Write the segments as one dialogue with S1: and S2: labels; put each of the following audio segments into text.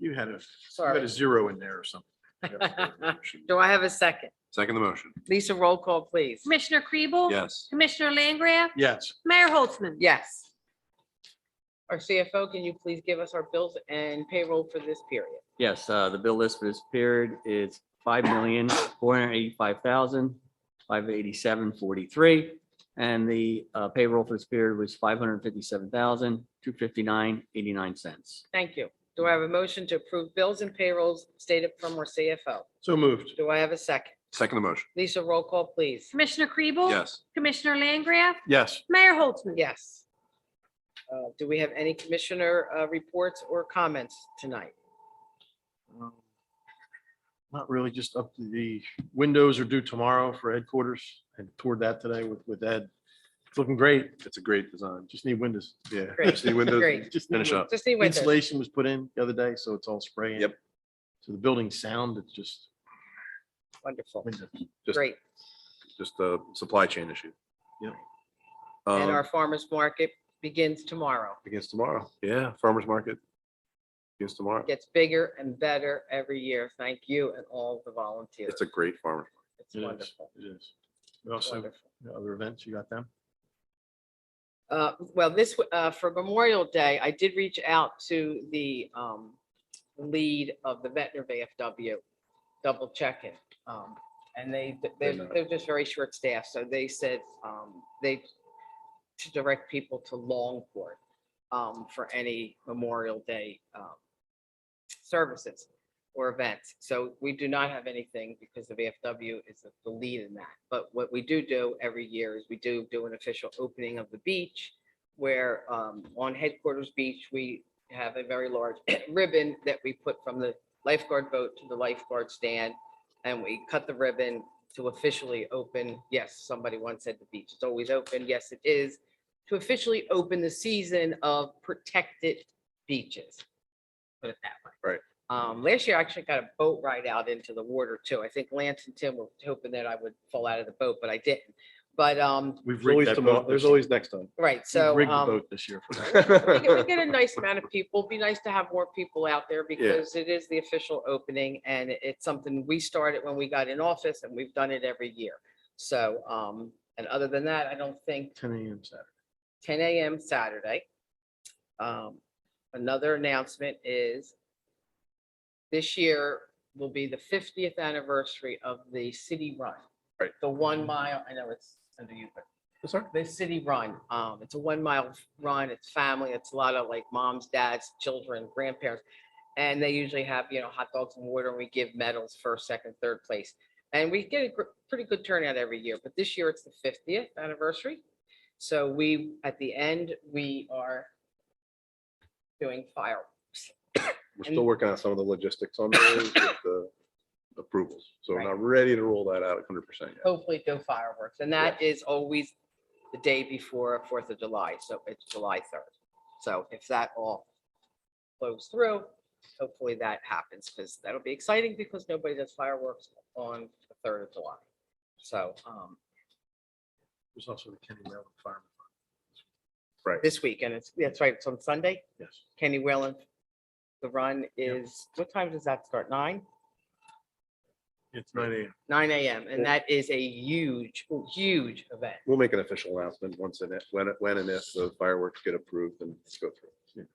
S1: You had a, you had
S2: Sorry.
S1: a zero in there or something.
S2: Do I have a second?
S3: Second the motion.
S2: Lisa, roll call, please.
S4: Commissioner Kribel?
S3: Yes.
S4: Commissioner Langgraf?
S1: Yes,
S4: Mayor Holtzman?
S2: Yes. Our CFO, can you please give us our bills and payroll for this period?
S5: Yes, uh, the bill list for this period is five million, four hundred eighty-five thousand, five eighty-seven, forty-three. And the uh, payroll for this period was five hundred fifty-seven thousand, two fifty-nine, eighty-nine cents.
S2: Thank you. Do I have a motion to approve bills and payrolls stated from our CFO?
S1: so moved.
S2: Do I have a second?
S3: Second the motion.
S2: Lisa, roll call, please.
S4: Commissioner Kribel?
S3: Yes.
S4: Commissioner Langgraf?
S1: Yes,
S4: Mayor Holtzman?
S2: Yes. Uh, Do we have any commissioner uh, reports or comments tonight?
S1: Um, Not really, just up to the windows are due tomorrow for headquarters and toured that today with, with Ed. It's looking great.
S3: It's a great design.
S1: Just need windows. Yeah.
S2: Great.
S1: Just need
S3: windows.
S2: Great.
S1: Just need
S3: Finish
S1: windows.
S3: up.
S2: Just need windows.
S1: Insulation was put in the other day, so it's all spraying.
S3: Yep.
S1: So the building's sound, it's just
S2: Wonderful.
S1: windows.
S3: Just-
S2: Great.
S3: Just a supply chain issue.
S1: Yep.
S2: And
S3: Um,
S2: our farmer's market begins tomorrow.
S3: Begins tomorrow. Yeah, farmer's market. Begins tomorrow.
S2: Gets bigger and better every year. Thank you and all the volunteers.
S3: It's a great farmer.
S2: It's
S1: It is,
S2: wonderful.
S1: It is. We Also,
S2: Wonderful.
S1: you know, other events, you got them?
S2: Uh, Well, this, w- uh, for Memorial Day, I did reach out to the um, lead of the Ventnor VFW, double checking. um, And they,
S3: They're
S2: they're,
S3: not.
S2: they're just very short staffed, so they said um, they to direct people to Longport um, for any Memorial Day um, services or events. So we do not have anything because the VFW is the lead in that. But what we do do every year is we do do an official opening of the beach where um, on headquarters beach, we have a very large ribbon that we put from the lifeguard boat to the lifeguard stand. And we cut the ribbon to officially open. Yes, somebody once said the beach is always open. Yes, it is. To officially open the season of protected beaches. Put it that way.
S3: Right.
S2: Um, last year, I actually got a boat ride out into the water too. I think Lance and Tim were hoping that I would fall out of the boat, but I didn't. But, um,
S1: We've rigged that boat. this-
S3: always next time.
S2: right,
S1: we've
S2: so.
S1: rigged the
S2: um,
S1: boat This year for that.
S2: we get- we get a nice amount of people. It'd Be nice to have more people out there because it is the official opening and it- it's something we started when we got in office and we've done it every year. So, um, and other than that, I don't think
S1: ten AM Saturday.
S2: ten AM Saturday. Um, another announcement is this year will be the fiftieth anniversary of the city run.
S3: Right.
S2: The one mile, I know it's under you, but
S3: Sorry.
S2: the city run. Um, it's a one mile run. It's family. It's a lot of like moms, dads, children, grandparents. And they usually have, you know, hot dogs and water and we give medals first, second, third place. And we get a gr- pretty good turnout every year, but this year it's the fiftieth anniversary. So we, at the end, we are doing fireworks.
S3: We're still working on some of the logistics on those with the approvals. So we're
S2: Right.
S3: not ready to roll that out hundred percent yet.
S2: hopefully do fireworks. And that is always the day before Fourth of July, so it's July third. So if that all flows through, hopefully that happens because that'll be exciting because nobody does fireworks on the third of July. So um,
S1: There's also the Kenny Mountain Fireman.
S2: this weekend, it's, that's right, it's on Sunday,
S1: Yes.
S2: Kenny Whalen. The run is, what time does that start? Nine?
S1: It's nine AM.
S2: Nine AM. And that is a huge, huge event.
S3: We'll make an official announcement once and if, when, it- when and if the fireworks get approved and let's go through.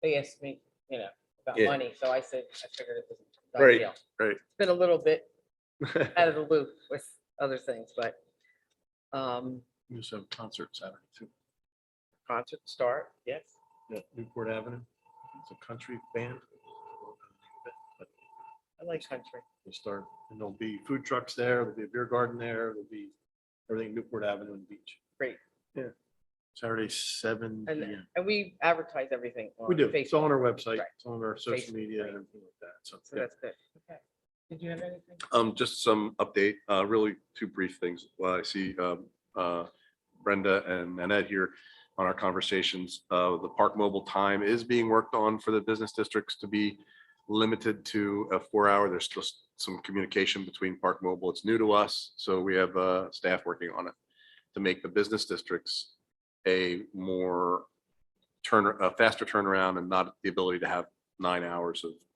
S2: they asked me, you know, about
S3: Yeah.
S2: money, so I said, I figured it was. a done
S3: Right,
S2: deal.
S3: right.
S2: It's Been a little bit out of the loop with other things, but um,
S1: We also have a concert Saturday too.
S2: concert start, yes.
S1: at Newport Avenue. It's a country band. But
S2: I like country.
S1: We'll start, and there'll be food trucks there, there'll be a beer garden there, there'll be everything Newport Avenue and Beach.
S2: Great.
S1: Yeah. Saturday, seven
S2: And-
S1: PM.
S2: And we advertise everything on
S1: We do. It's on
S2: Facebook,
S1: our website,
S2: Right.
S1: it's on our social
S2: Facebook,
S1: media
S2: right.
S1: and everything like that. So,
S2: so
S1: yeah.
S2: that's good. Okay. Did you have anything?
S3: Um, just some update, uh, really two brief things. Well, I see, um, uh, Brenda and Annette here on our conversations. Uh, the park mobile time is being worked on for the business districts to be limited to a four hour. There's just some communication between park mobile. It's new to us, so we have, uh, staff working on it to make the business districts a more turn, a faster turnaround and not the ability to have nine hours of